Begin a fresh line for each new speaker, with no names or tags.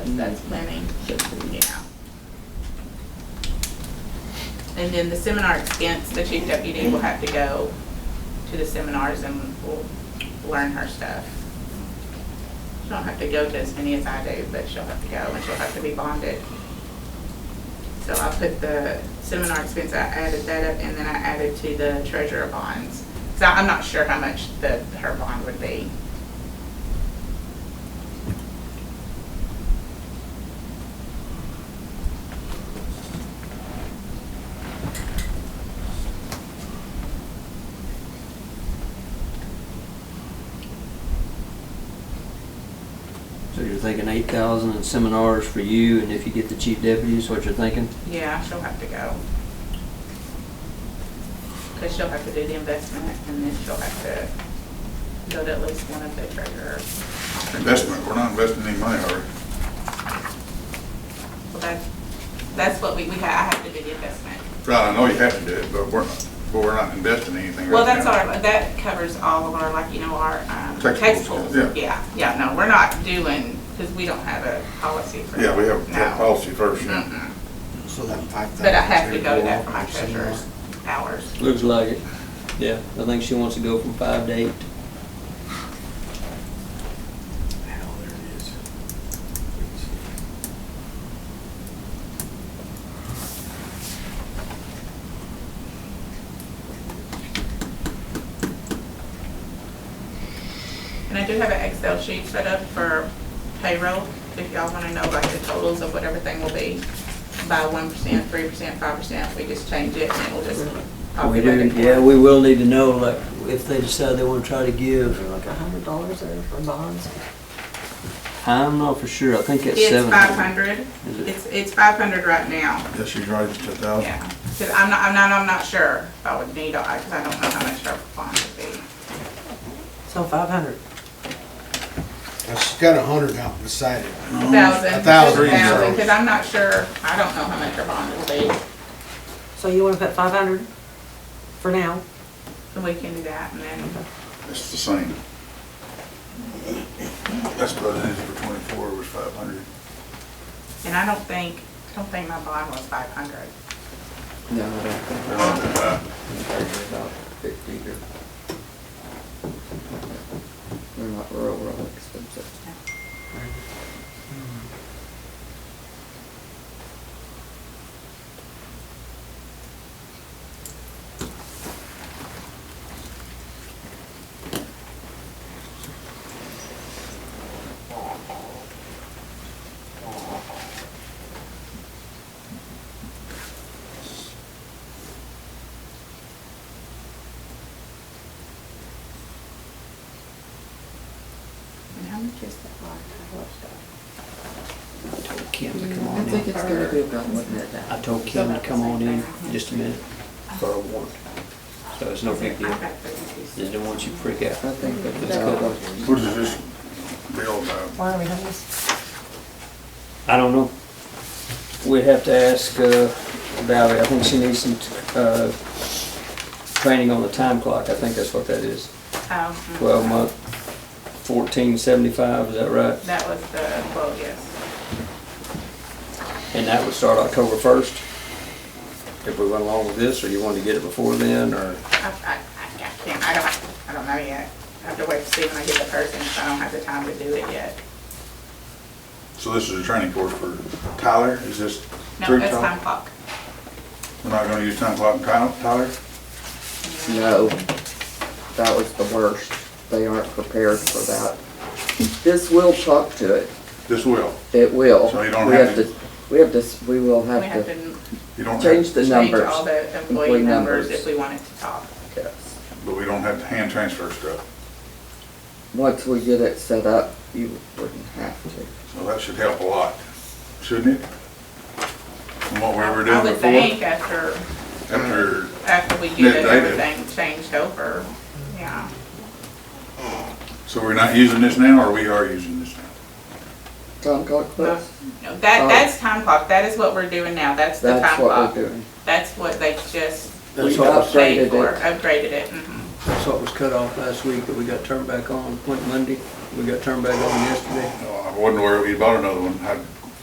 because that's planning, yeah. And then the seminar expense, the chief deputy will have to go to the seminars and will learn her stuff. She don't have to go to as many as I do, but she'll have to go and she'll have to be bonded. So I put the seminar expense, I added that up, and then I added to the treasurer bonds. So I'm not sure how much the, her bond would be.
So you're thinking eight thousand in seminars for you, and if you get the chief deputy, is what you're thinking?
Yeah, she'll have to go. Because she'll have to do the investment, and then she'll have to go to at least one of the treasurer. conferences.
Investment, we're not investing any money, are we?
Well, that's, that's what we, we have, I have to do the investment.
Right, I know you have to do it, but we're, not- but we're not investing anything right now.
Well, that's our, that covers all of our, like, you know, our um,
Textbooks,
textbooks.
yeah.
Yeah, yeah, no, we're not doing, because we don't have a policy for that.
Yeah, we have we have
No.
policy first, yeah.
Mm-mm.
So that five thousand.
But I have to go to that for my treasurer's hours.
Looks like it. Yeah, I think she wants to go from five to eight.
Hell, there it is.
And I do have an Excel sheet set up for payroll, if y'all wanna know like the totals of what everything will be by one percent, three percent, five percent, we just change it and it'll just.
We do,
populate it.
yeah, we will need to know, like, if they decide they wanna try to give.
Like a hundred dollars there for bonds?
I'm not for sure, I think it's
It's
seven.
five hundred,
Is it?
it's, it's five hundred right now,
Yeah, she's right, it's two thousand.
yeah, cause I'm not, I'm not, I'm not sure if I would need, all- cause I don't know how much our bond would be.
So five hundred.
Well, She's got a hundred out beside it.
A thousand.
A thousand.
cause I'm not sure, I don't know how much our bond will be,
So you wanna put five hundred for now?
and we can do that and then,
It's the same. That's what it is for twenty-four, was five hundred.
and I don't think, I don't think my bond was five hundred.
No, I don't think
They're not that high.
they're about fifty or. They're not real, real expensive.
And how much is that bond?
I told Kim to come on
think
in,
it's gonna be about one hundred thousand.
I told Kim to come on in just a minute,
So I want-
so it's no big deal. Just don't want you to freak out.
I think that.
Let's go.
What is this bill about?
Why are we having this?
I don't know. We'd have to ask uh, Valerie, I think she needs some uh, training on the time clock, I think that's what that is.
Oh, mm.
12 month, 1475, is that right?
That was the quote, yes.
And that would start October 1st? If we went along with this, or you wanted to get it before then, or?
I, I, I I can't, I don't, I don't know yet. I have to wait to see when I get the person, so I don't have the time to do it yet.
So this is a training course for Tyler, is this?
No,
through
that's
Tyler?
time clock.
We're not gonna use time clock in Tyler? Tyler?
No, that was the worst. They aren't prepared for that. This will talk to it.
This will,
It will.
So you don't
We
have to-
We have to, s- we will
We
have
have to
to
n-
you don't
change
have,
the
change all
numbers.
the employee
Employee
numbers
numbers.
if we wanted to talk.
Yes.
but we don't have to hand transfer stuff,
Once we get it set up, you wouldn't have to.
so that should help a lot, shouldn't it? From what we were
I
doing
would
before,
think after,
after
after we get it,
Yeah, they did.
everything changed over, yeah.
So we're not using this now, or we are using this now?
Tom got close?
No, That,
Oh.
that's time clock. That is what we're doing now. That's the time
That's what we're
clock.
doing.
That's what they just
We
That's what was-
upgraded
paid for,
it.
upgraded it. mhm.
That's what was cut off last week, that we got turned back on, went Monday, we got turned back on yesterday.
No, I wasn't aware we bought another one. I